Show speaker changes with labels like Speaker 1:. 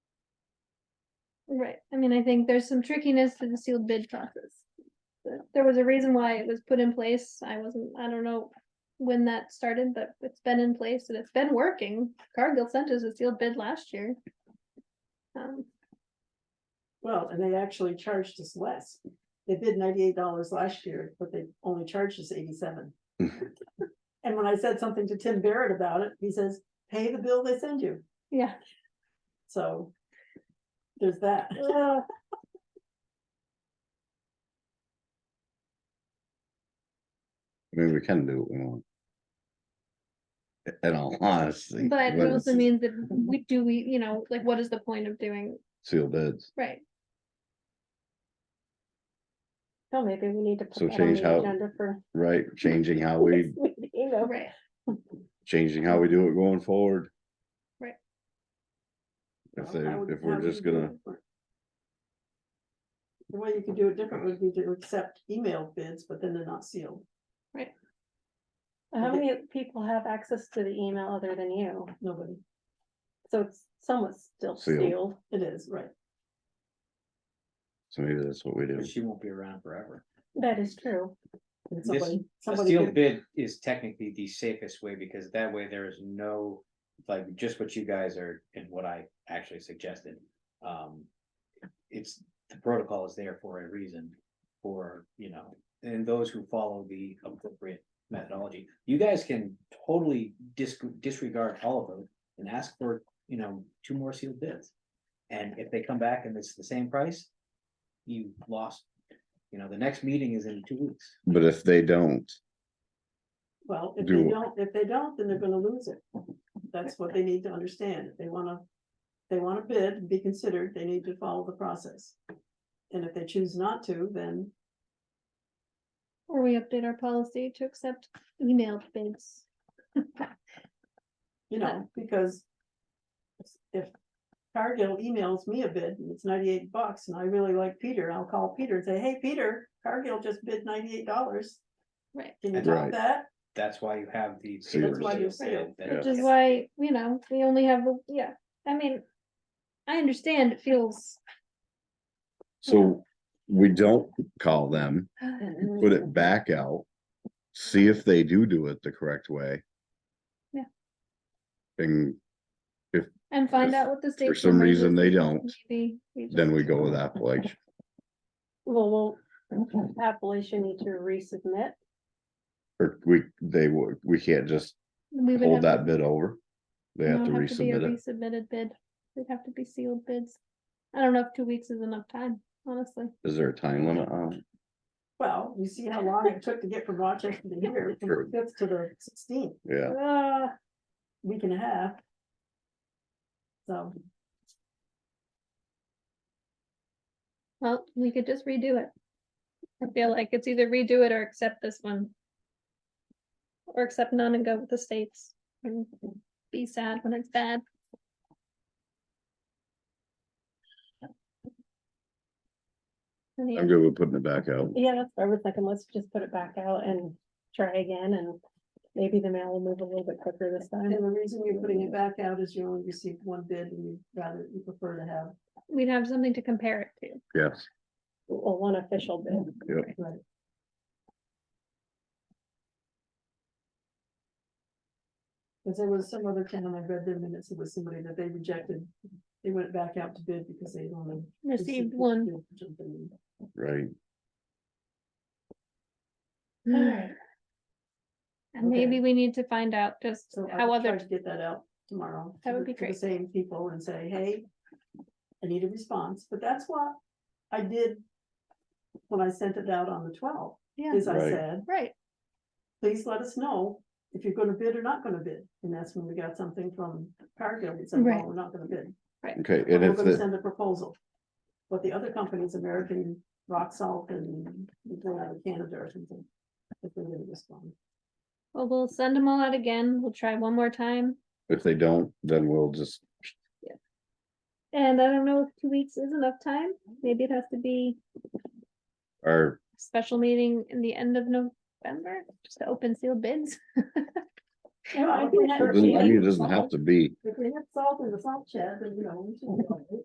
Speaker 1: Right, I mean, I think there's some trickiness to the sealed bid process. There- There was a reason why it was put in place, I wasn't, I don't know when that started, but it's been in place and it's been working. Cargill sent us a sealed bid last year. Um,
Speaker 2: Well, and they actually charged us less. They bid ninety-eight dollars last year, but they only charged us eighty-seven. And when I said something to Tim Barrett about it, he says, pay the bill they send you,
Speaker 1: yeah,
Speaker 2: so. There's that.
Speaker 1: Ugh,
Speaker 3: I mean, we can do what we want. In all honesty.
Speaker 1: but it
Speaker 3: when
Speaker 1: also
Speaker 3: it's
Speaker 1: means that we do, we, you know, like, what is the point of doing,
Speaker 3: Sealed bids,
Speaker 1: right?
Speaker 4: So maybe we need to
Speaker 3: So
Speaker 4: put that on
Speaker 3: change
Speaker 4: the
Speaker 3: how-
Speaker 4: agenda for.
Speaker 3: right, changing how we,
Speaker 4: next meeting of-
Speaker 1: Right,
Speaker 3: changing how we do it going forward.
Speaker 1: Right.
Speaker 3: If they,
Speaker 2: Well, how would-
Speaker 3: if
Speaker 2: how
Speaker 3: we're
Speaker 2: would
Speaker 3: just
Speaker 2: you do
Speaker 3: gonna,
Speaker 2: it different? The way you could do it different would be to accept email bids, but then they're not sealed.
Speaker 4: How many people have access to the email other than you?
Speaker 2: Nobody,
Speaker 4: So it's somewhat still
Speaker 3: Sealed.
Speaker 4: sealed.
Speaker 2: it is, right.
Speaker 3: so maybe that's what we do.
Speaker 5: But she won't be around forever.
Speaker 4: That is true.
Speaker 2: And
Speaker 5: This-
Speaker 2: Somebody,
Speaker 5: A
Speaker 2: somebody
Speaker 5: sealed
Speaker 2: could-
Speaker 5: bid is technically the safest way because that way there is no, like, just what you guys are and what I actually suggested. Um, it's, the protocol is there for a reason for, you know, and those who follow the appropriate methodology. You guys can totally dis- disregard all of them and ask for, you know, two more sealed bids. And if they come back and it's the same price, you lost, you know, the next meeting is in two weeks.
Speaker 3: But if they don't,
Speaker 2: Well, if
Speaker 3: do
Speaker 2: they
Speaker 3: it.
Speaker 2: don't, if they don't, then they're gonna lose it. That's what they need to understand. If they wanna, they wanna bid, and be considered, they need to follow the process. And if they choose not to, then
Speaker 1: or we update our policy to accept emailed bids.
Speaker 2: you know, because. If Cargill emails me a bid and it's ninety-eight bucks and I really like Peter, I'll call Peter and say, hey, Peter, Cargill just bid ninety-eight dollars.
Speaker 1: Right.
Speaker 2: Can you top
Speaker 3: Right.
Speaker 2: that?
Speaker 5: That's why you have the.
Speaker 3: Sealed.
Speaker 5: papers
Speaker 2: That's why you
Speaker 5: that-
Speaker 2: seal.
Speaker 5: that-
Speaker 1: Which is why, you know, we only have, the yeah, I mean, I understand it feels,
Speaker 3: so we don't call them, put it back out. See if they do do it the correct way.
Speaker 1: Yeah.
Speaker 3: And
Speaker 1: and find
Speaker 3: If
Speaker 1: out what the state.
Speaker 3: for some
Speaker 1: numbers
Speaker 3: reason
Speaker 1: is,
Speaker 3: they
Speaker 1: and
Speaker 3: don't,
Speaker 1: maybe just-
Speaker 3: then we go with Appalachia.
Speaker 4: Well, will Appalachian need to resubmit?
Speaker 3: Or we, they, would. we can't just
Speaker 1: we would have
Speaker 3: hold that
Speaker 1: to-
Speaker 3: bid over. They
Speaker 1: no,
Speaker 3: have to
Speaker 1: it'd be a
Speaker 3: resubmit it.
Speaker 1: Resubmitted bid, it'd have to be sealed bids. I don't know if two weeks is enough time, honestly.
Speaker 3: Is there a time limit on it?
Speaker 2: Well, you see how long it took to get from Rochester to here, from
Speaker 3: True.
Speaker 2: the fifth to the sixteenth.
Speaker 3: Yeah,
Speaker 2: Uh, week and a half. So,
Speaker 1: Well, we could just redo it. I feel like it's either redo it or accept this one. Or accept none and go with the states and be sad when it's bad. Any
Speaker 3: I'm good with putting it back out.
Speaker 4: Yeah, that's what I was thinking. Let's just put it back out and try again and maybe the mail will move a little bit quicker this
Speaker 2: and
Speaker 4: time.
Speaker 2: the reason you're putting it back out is you only received one bid and you rather, you prefer to have.
Speaker 1: we'd have something to compare it to.
Speaker 3: Yes,
Speaker 4: Well, one official bid.
Speaker 2: Right. Cause there was some other town, I read their minutes, it was somebody that they rejected, they went back out to bid because they only.
Speaker 1: Received one.
Speaker 2: bid or something.
Speaker 3: right.
Speaker 1: And Hmm. maybe
Speaker 2: Okay.
Speaker 1: we need to find out just
Speaker 2: So I
Speaker 1: how
Speaker 2: will try
Speaker 1: other,
Speaker 2: to get that out tomorrow.
Speaker 1: That
Speaker 2: to
Speaker 1: would
Speaker 2: the-
Speaker 1: be
Speaker 2: to the
Speaker 1: great.
Speaker 2: Same people and say, hey, I need a response, but that's what I did when I sent it out on the twelfth,
Speaker 1: yeah,
Speaker 2: is I
Speaker 3: Right.
Speaker 2: said,
Speaker 1: right,
Speaker 2: please let us know if you're gonna bid or not gonna bid. And that's when we got something from Cargill that said, well,
Speaker 1: Right.
Speaker 2: we're not gonna bid.
Speaker 3: Okay,
Speaker 2: We're
Speaker 3: and if
Speaker 2: gonna
Speaker 3: the,
Speaker 2: send a proposal. But the other companies, American Rock Salt and whatever, Canada or something, if they didn't respond.
Speaker 1: well, we'll send them all out again, we'll try one more time.
Speaker 3: if they don't, then we'll just,
Speaker 1: And I don't know if two weeks is enough time, maybe it has to be
Speaker 3: our,
Speaker 1: a special meeting in the end of November, just to open sealed bids.
Speaker 2: Yeah, I
Speaker 4: Well,
Speaker 2: think
Speaker 4: I
Speaker 2: that-
Speaker 3: it doesn't I mean, it doesn't have to be.
Speaker 2: If we had salt in the salt shed, then you know, we should.